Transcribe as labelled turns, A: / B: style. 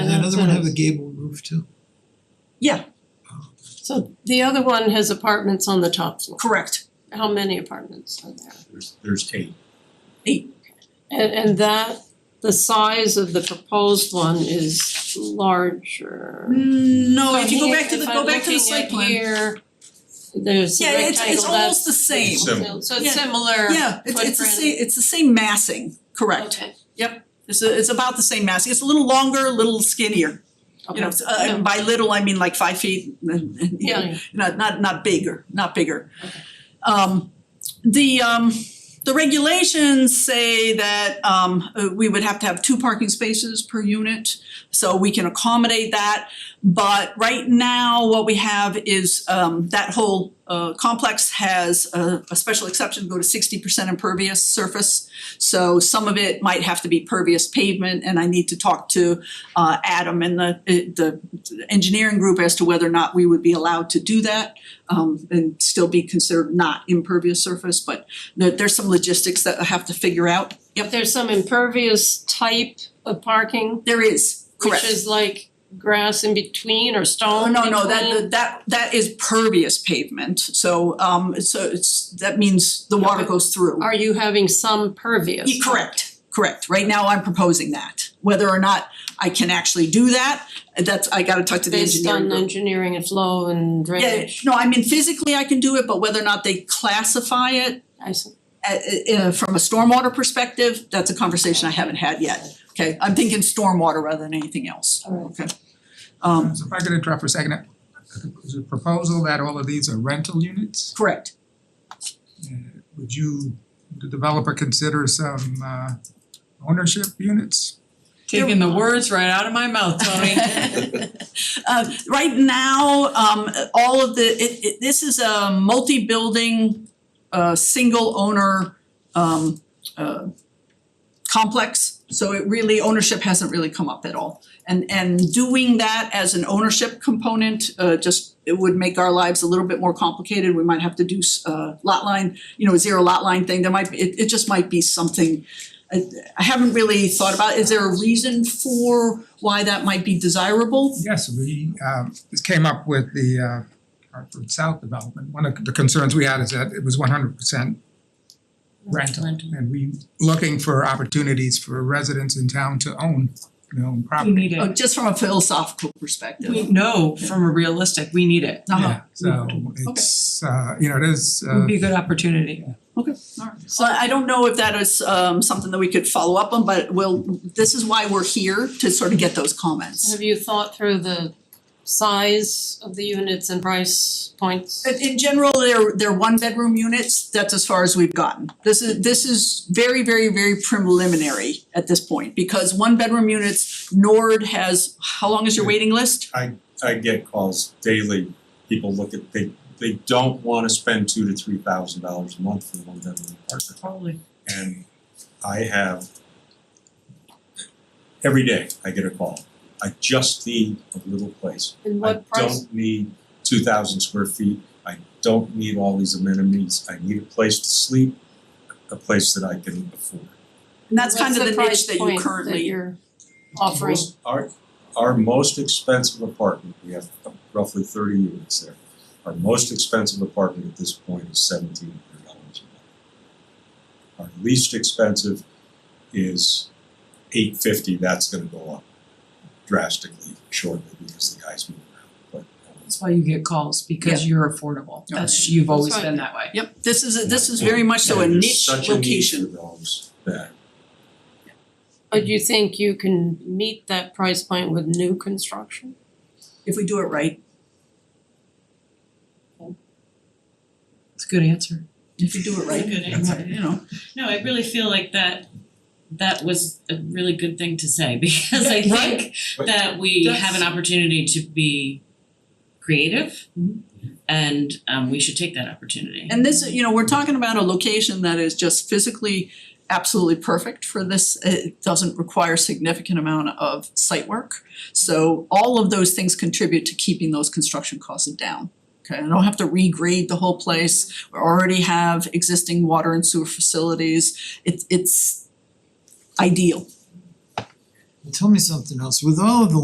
A: one have a
B: is.
A: gable roof too?
B: Yeah,
C: So the other one has apartments on the top floor.
B: correct.
C: How many apartments are there?
D: There's there's eight.
C: And and that, the size of the proposed one is larger.
B: Mm, No,
C: So
B: if you go
C: here,
B: back to the,
C: if
B: go
C: I'm
B: back to the
C: looking
B: site
C: at
B: plan.
C: here, there's the
B: Yeah, it's it's
C: rectangle,
B: almost the
C: that's-
B: same.
D: It's Similar.
C: So it's
B: Yeah.
C: similar.
B: Yeah, it's it's the same,
C: footprint.
B: it's the same massing, correct.
C: Okay,
B: It's a- it's about the same massing, it's a little longer, a little skinnier, you
C: okay.
B: know, it's, uh, and by little, I mean like five feet, and- and, you know,
C: Yeah,
B: not not not bigger, not bigger.
C: Okay.
B: Um the um the regulations say that um uh, we would have to have two parking spaces per unit, so we can accommodate that. But right now, what we have is um that whole uh complex has a a special exception, go to sixty percent impervious surface. So some of it might have to be pervious pavement, and I need to talk to uh Adam and the the engineering group as to whether or not we would be allowed to do that um and still be considered not impervious surface, but there there's some logistics that I have to figure out. Yep,
C: there's some impervious type of parking,
B: there is,
C: which
B: correct.
C: is like grass in between or
B: Oh,
C: stone in
B: no, no,
C: between.
B: that that that is pervious pavement, so um so it's that means the water
C: Okay.
B: goes through.
C: Are you having some pervious?
B: Yeah, correct, correct. Right now, I'm proposing that. Whether or not I can actually do that, that's I gotta talk to the
C: Based
B: engineering
C: on
B: group.
C: engineering and flow and
B: Yeah,
C: drainage,
B: no, I mean physically I can do it, but whether or not they classify it
C: I see.
B: uh, uh, from a stormwater perspective, that's a conversation I haven't had yet. Okay, I'm thinking stormwater rather than anything else.
C: Alright.
B: Okay. Um,
E: So if I could interrupt for a second, uh, there's a proposal that all of these are rental units.
B: correct.
E: Uh, Would you, the developer consider some uh ownership units?
F: Taking the words right out of my mouth, Tony.
B: Uh, right now, um, all of the, it, it, this is a multi-building, uh, single owner, um, uh, complex, so it really, ownership hasn't really come up at all. And, and doing that as an ownership component, uh, just, it would make our lives a little bit more complicated. We might have to do, s- uh, lot line, you know, zero lot line thing, there might, be- it, it just might be something, I, I haven't really thought about, is there a reason for why that might be desirable?
E: Yes, we um this came up with the uh Hartford South development. One of the concerns we had is that it was one hundred percent rental. And we looking for opportunities for residents in town to own their own
F: We
E: property.
F: need
B: Oh,
F: it.
B: just from a philosophical perspective.
F: We know from a realistic, we need it.
B: Uh-huh.
E: Yeah, so it's uh you know, it is
F: It would
E: uh
F: be a good opportunity.
B: So I don't know if that is um something that we could follow up on, but we'll, this is why we're here to sort of get those comments.
C: Have you thought through the size of the units and price points?
B: In in general, they're they're one bedroom units, that's as far as we've gotten. This is this is very, very, very preliminary at this point, because one bedroom units, Nord has, how long is your waiting list?
D: I get calls daily, people look at, they they don't wanna spend two to three thousand dollars a month for one bedroom apartment.
F: Totally.
D: And I have every day I get a call, I just need a little place.
C: And
D: I
C: what price,
D: don't need two thousand square feet, I don't need all these amenities, I need a place to sleep, a place that I can afford.
B: And that's kind
C: what's
B: of
C: the
B: the
C: price
B: niche that you
C: point that
B: currently,
C: you're offering?
D: Most- Our our most expensive apartment, we have roughly thirty units there. Our most expensive apartment at this point is seventeen hundred dollars a month. Our least expensive is eight fifty, that's gonna go up drastically shortly because the guys move around, but um,
F: That's why you get calls, because you're affordable. That's, you've always
C: That's right.
F: been that way.
B: yep, this is a- this is very much so a
D: and there's
B: niche
D: such a need
B: location.
D: for those that
C: But you think you can meet that price point with new construction?
B: If we do it right,
F: It's a good answer.
B: if we do it right,
G: Good answer.
B: you know.
G: No, I really feel like that that was a really good thing to say because I think
D: Right.
G: that we have
F: That's-
G: an opportunity to be creative
F: Mm-hmm.
G: and um we should take that opportunity.
B: And this, you know, we're talking about a location that is just physically absolutely perfect for this. It doesn't require significant amount of site work. So all of those things contribute to keeping those construction costs down. Okay, I don't have to regrade the whole place. We already have existing water and sewer facilities. It's it's ideal.
A: Tell me something else, with all of the